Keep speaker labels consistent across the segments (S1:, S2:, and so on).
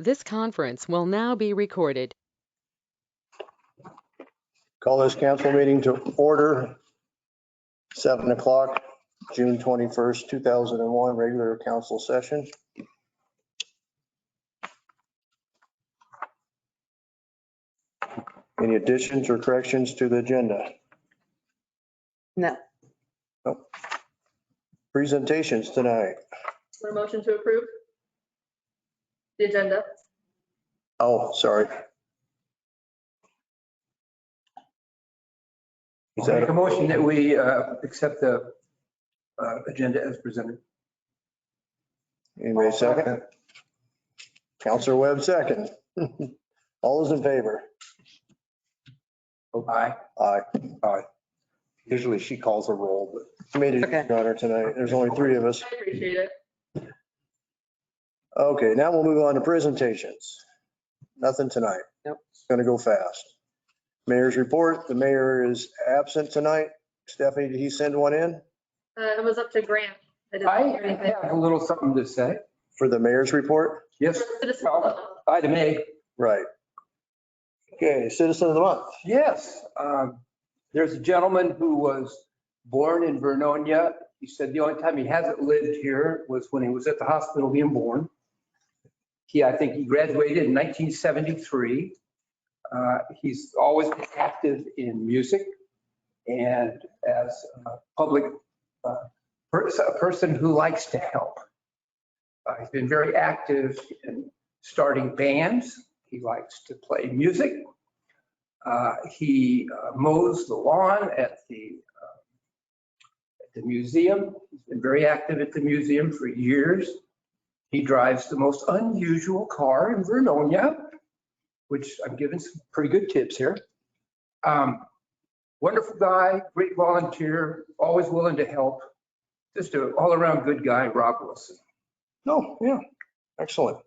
S1: This conference will now be recorded.
S2: Call this council meeting to order. Seven o'clock, June 21st, 2001, regular council session. Any additions or corrections to the agenda?
S3: No.
S2: Nope. Presentations tonight.
S4: Want a motion to approve? The agenda?
S2: Oh, sorry. Is
S5: I'll Make
S2: that
S5: a motion that we uh, accept the uh, agenda as presented.
S2: anybody second? Counselor Webb second. All those in favor?
S5: Aye.
S2: Aye.
S6: Usually she calls a roll, but
S2: Made it
S3: Okay.
S2: honor tonight. There's only three of us.
S4: I appreciate it.
S2: Okay, now we'll move on to presentations. Nothing tonight.
S3: Nope.
S2: It's Going to go fast. Mayor's report. The mayor is absent tonight. Stephanie, did he send one in
S4: Uh, it was up to Grant. I didn't
S5: I
S4: hear anything.
S5: have a little something to say.
S2: for the mayor's report?
S5: Yes,
S4: Citizen-
S5: well, aye to me.
S2: Right. Okay, citizen of the month.
S5: Yes. um, There's a gentleman who was born in Vernonia. He said the only time he hasn't lived here was when he was at the hospital being born. He, I think he graduated in 1973. Uh, He's always been active in music and as a public, uh, pers- a person who likes to help. Uh, He's been very active in starting bands. He likes to play music. Uh, He uh, mows the lawn at the, uh, at the museum. He's been very active at the museum for years. He drives the most unusual car in Vernonia, which I'm giving some pretty good tips here. Um, Wonderful guy, great volunteer, always willing to help. Just an all-around good guy, Rob Wilson.
S2: No, yeah, excellent.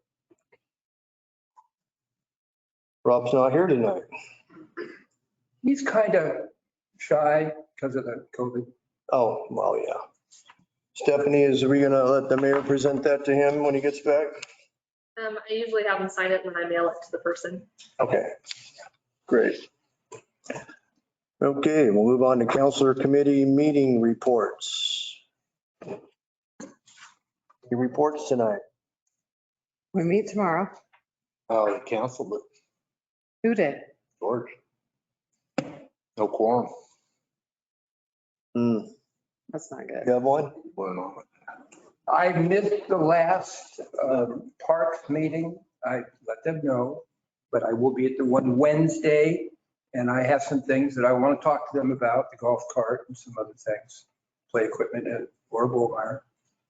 S2: Rob's not here tonight.
S5: He's kind of shy because of the COVID.
S2: Oh, well, yeah. Stephanie, is we gonna let the mayor present that to him when he gets back?
S4: Um, I usually have them sign it and then I mail it to the person.
S2: Okay, great. Okay, we'll move on to counselor committee meeting reports. Your reports tonight.
S3: We meet tomorrow.
S6: uh, the council, but
S3: Who did?
S6: George, no quorum
S2: Hmm,
S3: That's not good.
S2: You have one?
S6: went on.
S5: I missed the last um, park meeting. I let them know, but I will be at the one Wednesday. And I have some things that I want to talk to them about, the golf cart and some other things, play equipment at Laura Bullmeyer.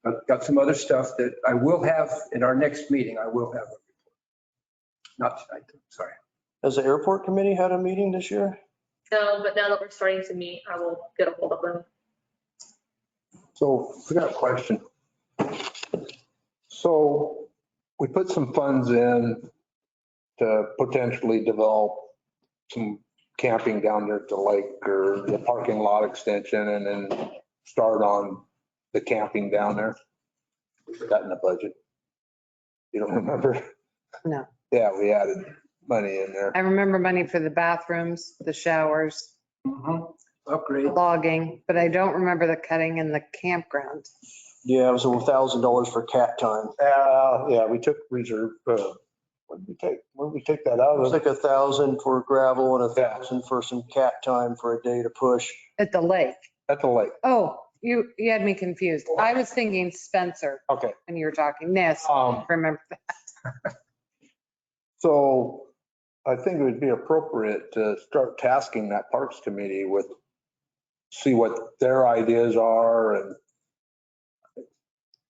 S5: I've got some other stuff that I will have in our next meeting. I will have. a report. Not tonight, though, sorry.
S2: Has the airport committee had a meeting this year?
S4: No, but now that we're starting to meet, I will get a hold of them.
S6: So I got a question. So we put some funds in to potentially develop some camping down there at the lake or the parking lot extension and then start on the camping down there. We Got in the budget. You don't remember?
S3: No.
S6: Yeah, we added money in there.
S3: I remember money for the bathrooms, the showers,
S5: Mhm. Upgrade.
S3: logging, but I don't remember the cutting in the campground.
S2: Yeah, it was a thousand dollars for cat time.
S6: Uh, yeah, we took reserve, uh, what did we take? Where did we take that
S2: It
S6: out
S2: was
S6: of?
S2: like a thousand for gravel and a thousand for some cat time for a day to push.
S3: At the lake.
S6: At the lake.
S3: Oh, you, you had me confused. I was thinking Spencer
S6: Okay.
S3: when you were talking. Yes,
S6: Um,
S3: remember that.
S6: so I think it would be appropriate to start tasking that Parks Committee with, see what their ideas are and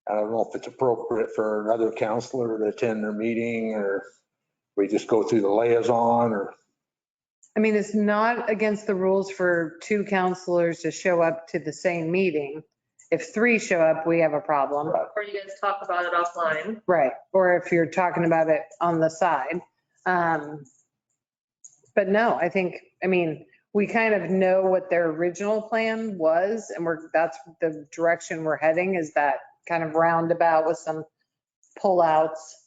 S6: I don't know if it's appropriate for another counselor to attend their meeting or we just go through the liaison or,
S3: I mean, it's not against the rules for two counselors to show up to the same meeting. If three show up, we have a problem.
S4: Or you guys talk about it offline.
S3: Right, or if you're talking about it on the side. Um, But no, I think, I mean, we kind of know what their original plan was and we're, that's the direction we're heading is that kind of roundabout with some pullouts.